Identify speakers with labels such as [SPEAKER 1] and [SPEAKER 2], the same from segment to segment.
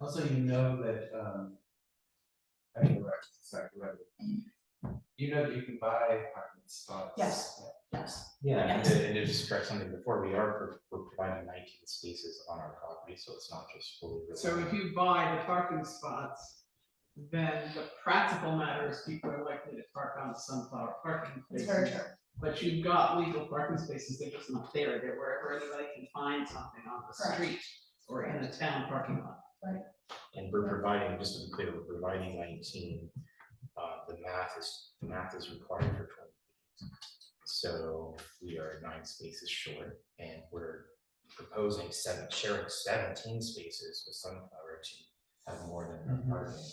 [SPEAKER 1] Also, you know that, um. I mean, right, exactly right. You know that you can buy parking spots.
[SPEAKER 2] Yes. yes,
[SPEAKER 3] Yeah, and
[SPEAKER 2] Yes.
[SPEAKER 3] to, and to just correct something before, we are, pro- we're providing nineteen spaces on our property, so it's not just fully.
[SPEAKER 4] So if
[SPEAKER 3] reliant-
[SPEAKER 4] you buy the parking spots, then the practical matter is people are likely to park on the sunflower parking
[SPEAKER 2] it's very
[SPEAKER 4] places.
[SPEAKER 2] true.
[SPEAKER 4] But you've got legal parking spaces, they're just not there, they're wherever anybody can find something on the
[SPEAKER 2] Correct.
[SPEAKER 4] street or in the town parking lot.
[SPEAKER 3] And we're providing, just to be clear, we're providing nineteen, uh, the math is, the math is required for twenty. So we are nine spaces short, and we're proposing seven, sharing seventeen spaces with Sunflower to have more than
[SPEAKER 1] Mhm.
[SPEAKER 3] our parking.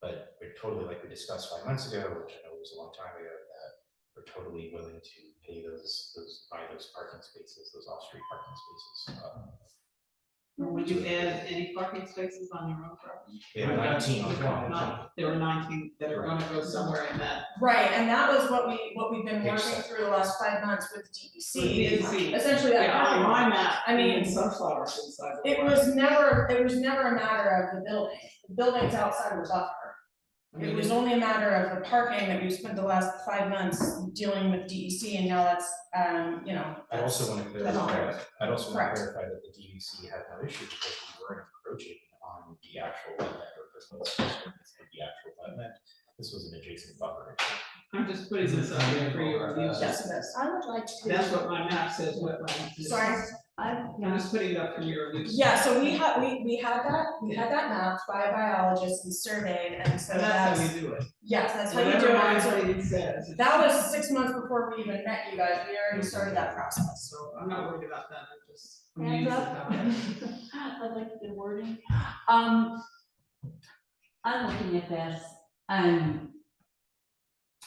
[SPEAKER 3] But we're totally, like we discussed five months ago, which I know was a long time ago, that we're totally willing to pay those, those, buy those parking spaces, those off-street parking spaces. uh,
[SPEAKER 4] Would you add any parking spaces on your own property?
[SPEAKER 3] We have nineteen on common.
[SPEAKER 4] Not- There were nineteen that are gonna go somewhere in that.
[SPEAKER 2] Right, and that was what we, what we've been
[SPEAKER 3] Page
[SPEAKER 2] working
[SPEAKER 3] seven.
[SPEAKER 2] through the last five months with DEC
[SPEAKER 4] With
[SPEAKER 2] is
[SPEAKER 4] DEC.
[SPEAKER 2] essentially that.
[SPEAKER 4] Yeah, on
[SPEAKER 2] pattern.
[SPEAKER 4] my map,
[SPEAKER 2] I
[SPEAKER 4] I
[SPEAKER 2] mean,
[SPEAKER 4] mean, sunflowers inside the.
[SPEAKER 2] It
[SPEAKER 4] lot.
[SPEAKER 2] was never, it was never a matter of the building, the building's outside the buffer.
[SPEAKER 4] I mean,
[SPEAKER 2] It was only a matter of the parking that we spent the last five months dealing with DEC and now that's, um, you know.
[SPEAKER 3] I also want to
[SPEAKER 2] that's all
[SPEAKER 3] clarify, I'd also want
[SPEAKER 2] Correct.
[SPEAKER 3] to clarify that the DUC had no issue because we weren't encroaching on the actual wetland or personal space ordinance of the actual wetland. This was an adjacent buffer.
[SPEAKER 4] I'm just putting this out there for your review.
[SPEAKER 2] Yes, it is.
[SPEAKER 5] I would like to.
[SPEAKER 4] That's what my map says wetland is.
[SPEAKER 2] Sorry.
[SPEAKER 5] I,
[SPEAKER 4] I'm
[SPEAKER 5] yeah,
[SPEAKER 4] just putting it up for your review.
[SPEAKER 2] Yeah, so we had, we, we had that, we had that mapped by biologists and surveyed and so
[SPEAKER 4] And that's
[SPEAKER 2] that's,
[SPEAKER 4] how you do it.
[SPEAKER 2] yes, that's how you do it.
[SPEAKER 4] Whatever my
[SPEAKER 2] So
[SPEAKER 4] rating says. it's-
[SPEAKER 2] That was six months before we even met you guys, we already started that process.
[SPEAKER 4] So I'm not worried about that, I'm just.
[SPEAKER 5] Hands up. I like the wording. Um, I'm looking at this, um,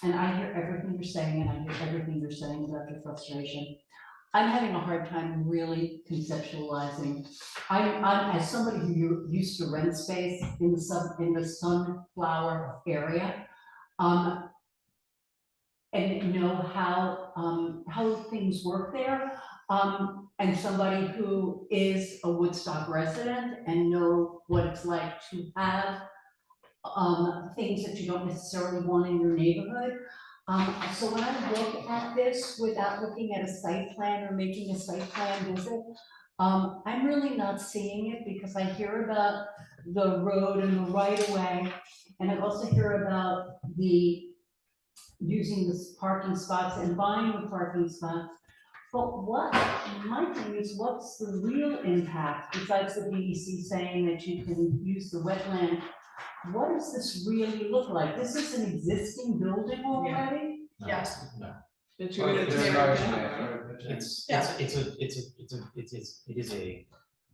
[SPEAKER 5] and I hear everything you're saying, and I hear everything you're saying about your frustration. I'm having a hard time really conceptualizing. I, I'm, as somebody who u- used to rent space in the sun, in the sunflower area, um, and know how, um, how things work there, um, and somebody who is a Woodstock resident and know what it's like to have um, things that you don't necessarily want in your neighborhood. Um, so when I look at this without looking at a site plan or making a site plan visit, um, I'm really not seeing it because I hear about the road and the right of way. And I also hear about the using the parking spots and buying the parking spots. But what, my thing is, what's the real impact besides the DEC saying that you can use the wetland? What does this really look like? This is an existing building already?
[SPEAKER 3] No,
[SPEAKER 2] Yes.
[SPEAKER 3] No,
[SPEAKER 4] That you're
[SPEAKER 1] Well,
[SPEAKER 4] gonna
[SPEAKER 1] it's
[SPEAKER 4] tear it
[SPEAKER 1] large,
[SPEAKER 4] down,
[SPEAKER 1] yeah,
[SPEAKER 4] right?
[SPEAKER 1] but it's-
[SPEAKER 3] it's, it's, it's a, it's a, it's a, it's, it's, it is a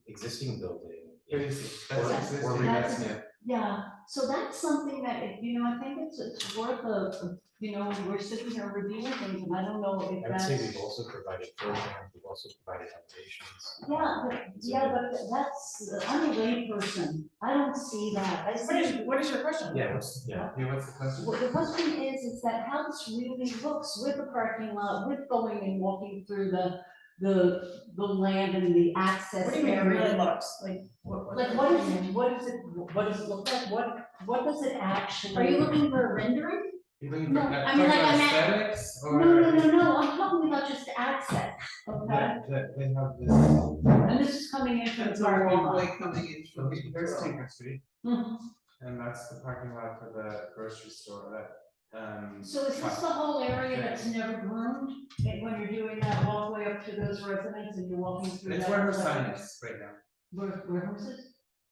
[SPEAKER 3] existing building.
[SPEAKER 1] It is,
[SPEAKER 3] Or-
[SPEAKER 1] that's
[SPEAKER 3] or
[SPEAKER 1] existing,
[SPEAKER 3] revamp.
[SPEAKER 1] yeah.
[SPEAKER 5] Yeah, so that's something that, if- you know, I think it's, it's worth a, a- you know, we're sitting here reviewing things and I don't know if
[SPEAKER 3] I would
[SPEAKER 5] that's.
[SPEAKER 3] say we've also provided programs, we've also provided foundations.
[SPEAKER 5] Yeah, but, yeah, but that's, I'm a layperson. I don't see that. I
[SPEAKER 2] What is,
[SPEAKER 5] see.
[SPEAKER 2] what is your question?
[SPEAKER 3] Yeah, it's- yeah,
[SPEAKER 1] Yeah, what's the question?
[SPEAKER 5] Well, the question is, is that how this really looks with the parking lot, with going and walking through the, the, the land and the access.
[SPEAKER 2] What do you mean it really
[SPEAKER 5] area.
[SPEAKER 2] looks like?
[SPEAKER 5] Like, what is it, what is it, what does it look like, what, what does it actually?
[SPEAKER 6] Are you looking for a rendering?
[SPEAKER 1] You looking for,
[SPEAKER 6] No,
[SPEAKER 1] that-
[SPEAKER 6] I mean,
[SPEAKER 1] talking
[SPEAKER 6] like,
[SPEAKER 1] about
[SPEAKER 6] I meant-
[SPEAKER 1] aesthetics
[SPEAKER 5] No,
[SPEAKER 1] or?
[SPEAKER 5] no, no, no, I'm talking about just access, okay?
[SPEAKER 1] That, that they have this,
[SPEAKER 5] And this is coming in from
[SPEAKER 4] That's
[SPEAKER 5] the
[SPEAKER 4] our
[SPEAKER 5] parking lot.
[SPEAKER 4] one way coming in from. the-
[SPEAKER 1] there's Tinker Street,
[SPEAKER 5] Mhm.
[SPEAKER 1] and that's the parking lot for the grocery store, that, um.
[SPEAKER 5] So is this the whole area that's never groomed, and when you're doing that walkway up to those residents and you're walking through that?
[SPEAKER 1] It's where her sign is right now,
[SPEAKER 5] Where, where hers is?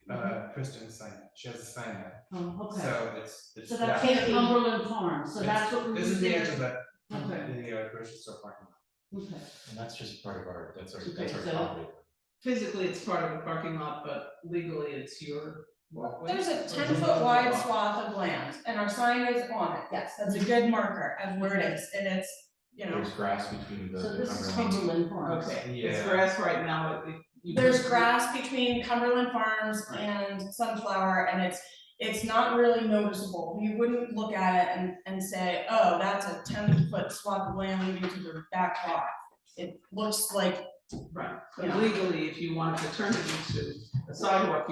[SPEAKER 1] uh, Christian's sign, she has a sign there,
[SPEAKER 5] Oh, Mm-hmm. okay,
[SPEAKER 1] so it's, it's,
[SPEAKER 5] so
[SPEAKER 1] yeah.
[SPEAKER 5] that's in Cumberland Farm, so that's what we.
[SPEAKER 1] This is the edge of that,
[SPEAKER 5] Okay,
[SPEAKER 1] the uh, grocery store parking lot.
[SPEAKER 5] okay,
[SPEAKER 3] And that's just part of our, that's our,
[SPEAKER 5] Okay,
[SPEAKER 3] that's our
[SPEAKER 5] so-
[SPEAKER 3] property.
[SPEAKER 4] Physically, it's part of the parking lot, but legally, it's your walkway.
[SPEAKER 2] There's a ten foot wide swath of land and our sign is on it, yes, that's a good marker of where it is and it's, you know.
[SPEAKER 3] There's grass between the.
[SPEAKER 5] so
[SPEAKER 3] the
[SPEAKER 5] this is
[SPEAKER 3] Cumberland-
[SPEAKER 5] Cumberland Farm.
[SPEAKER 4] Okay,
[SPEAKER 1] Yeah.
[SPEAKER 4] it's grass right now, it- it- you-
[SPEAKER 2] There's grass between Cumberland Farms and Sunflower and it's, it's not really noticeable. You wouldn't look at it and, and say, oh, that's a ten foot swath of land leading to their back lot. It looks like
[SPEAKER 4] Right,
[SPEAKER 2] Yeah.
[SPEAKER 4] but legally, if you wanted to turn it into a sidewalk,